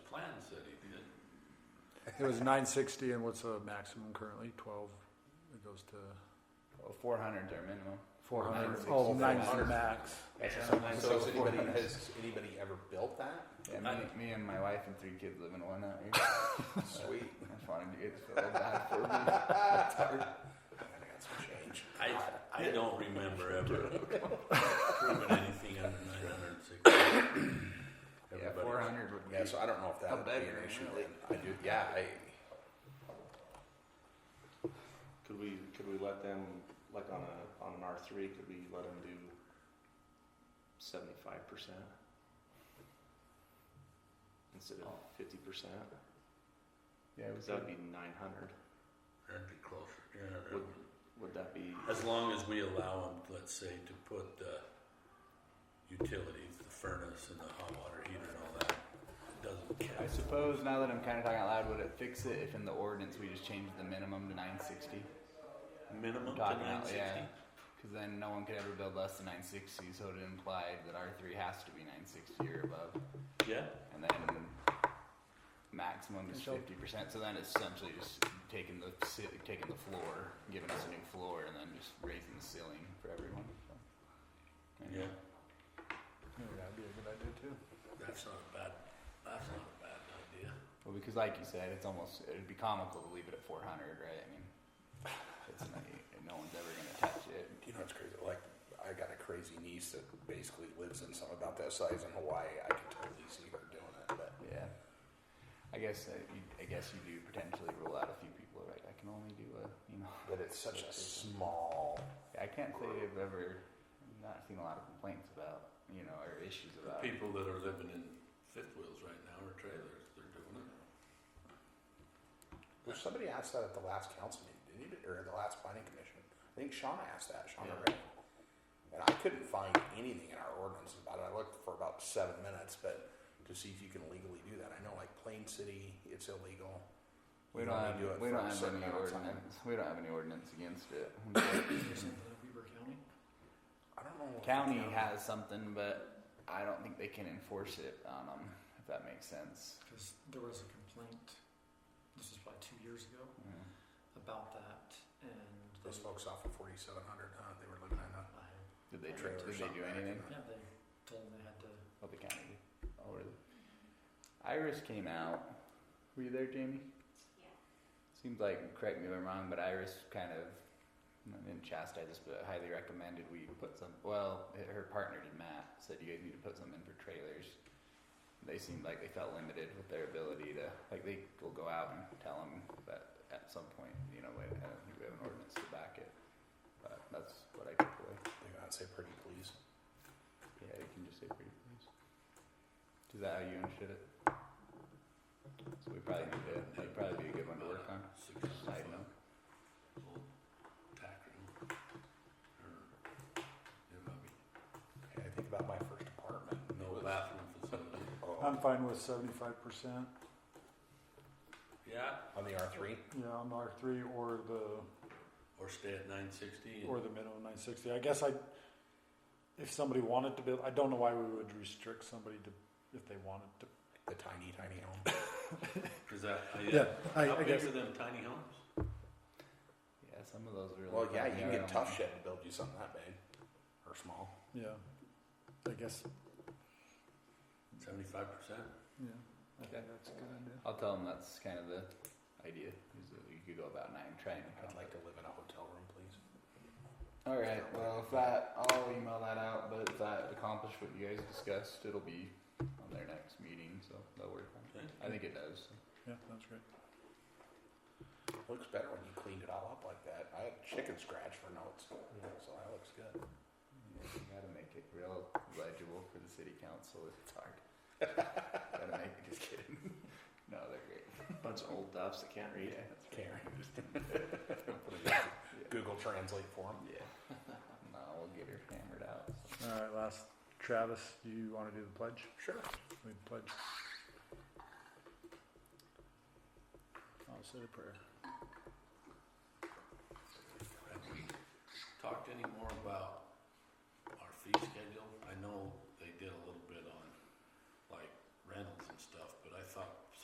It was nine sixty, and what's the maximum currently? Twelve. It goes to Oh, Four hundred's our minimum. four hundred. 960. Oh, nine's the 400. max. So has anybody, has anybody ever built that? Yeah, me, me and my wife and three kids live in one out here. Sweet. I just wanted you guys to feel bad for me. I got some change. I, I don't remember ever proving anything under nine hundred and sixty. Yeah, Everybody- four hundred would be. Yeah, so I don't know if that How would be big an right issue. now? then. I do, yeah, I, Could we, could we let them, like on a, on an R three, could we let them do seventy-five percent? Instead of fifty percent, Yeah, it was cause that'd be nine hundred, That'd be closer, yeah. that Would- would- would that be, As long as we allow them, let's say, to put the utilities, the furnace and the hot water heater and all that, it doesn't I count. suppose now that I'm kind of talking out loud, would it fix it if in the ordinance we just changed the minimum to 960? Minimum to Talking nine out, yeah. sixty? Because then no one could ever build less than 960, so it implied that R3 has to be 960 or above. Yeah, And then maximum is So- 50%, so then it's essentially just taking the ci- taking the floor, giving us a new floor, and then just raising the ceiling for everyone. So, yeah, Yeah, that'd be a good idea too. that's not a bad, that's not a bad idea. Well, because like you said, it's almost it'd be comical to leave it at 400, right? I mean, it's not, no one's ever gonna touch it. you know, it's crazy. Like, I got a crazy niece that basically lives in something about that size in Hawaii. I could totally see her doing it, but Yeah. I guess uh, you, I guess you do potentially rule out a few people, right? I can only do a you know. but it's such a small. I can't say I've ever not seen a lot of complaints about you know or issues about. it. People that are living in fifth wheels right now or trailers, they're doing it. Well, somebody asked that at the last council meeting, didn't you? Or the last planning commission? I think Shauna asked that. Shauna, Yeah. Ray. And I couldn't find anything in our ordinance about it. I looked for about seven minutes, but to see if you can legally do that. I know, like Plain City, it's illegal. We You don't only have do it we for a don't have certain any amount of time. ordinance. We don't have any ordinance against it. Weaver County. I don't know. if the County has something, but I don't think they can enforce it on them. If that makes sense. Because there was a complaint, this was probably two years ago, Yeah. about that, and they, Those folks off of 4700, huh? They were living in a. I, Did they Trailer did they shop do back in anything? yeah, they told them they had to, Oh, the county. did. Oh, really? Iris came out. Were you there, Jamie? Yeah. Seems like, correct me if I'm wrong, but Iris kind of, I didn't chastise us, but highly recommended we put some, well, her partner did, Matt, said you guys need to put something in for trailers. They seemed like they felt limited with their ability to, like, they will go out and tell them, but at some point, you know, I don't think we have an ordinance to back it. But that's what I took away. They would say pretty please. Yeah, you can just say pretty please. Is that how you understood it? So we probably need to, that'd probably be a good one to work on. Six hundred Side foot. note. old tack room. Or, there might be Okay, I think about my first apartment. no It was- bathroom facility. Oh, I'm fine with seventy-five percent. Yeah, on the R3? Yeah, on R three or the or stay at nine sixty or and the minimum nine sixty. I guess I, if somebody wanted to build, I don't know why we would restrict somebody to if they wanted to. The tiny, tiny home. is that, uh, yeah. Yeah, I, How I big guess. are them tiny homes? Yeah, some of those really. Well, yeah, fucking you can are get on- tough shit to build you something that big or small. Yeah, I guess. Seventy-five percent? Yeah, I Okay. think that's a good idea. I'll tell them that's kind of the idea, is that you could go about nine, try and. I'd like to live in a hotel room, please. Alright, well, if that, I'll email that out, but if that accomplished what you guys discussed, it'll be on their next meeting, so that'll work. on Okay. it. I think it does. Yeah, that's great. Looks better when you cleaned it all up like that. I had chicken scratch for notes, so that looks good. Yeah, You gotta make it real legible for the city council. It's hard. gotta make it. Just kidding. No, they're great. bunch of old duffs that can't read? Yeah, that's right. Karen. Just- Google Translate for them. Yeah. No, we'll get her hammered out. so. All right, last Travis, do you want to do the pledge? Sure. We pledge. I'll say a prayer. Have we talked anymore about our fee schedule? I know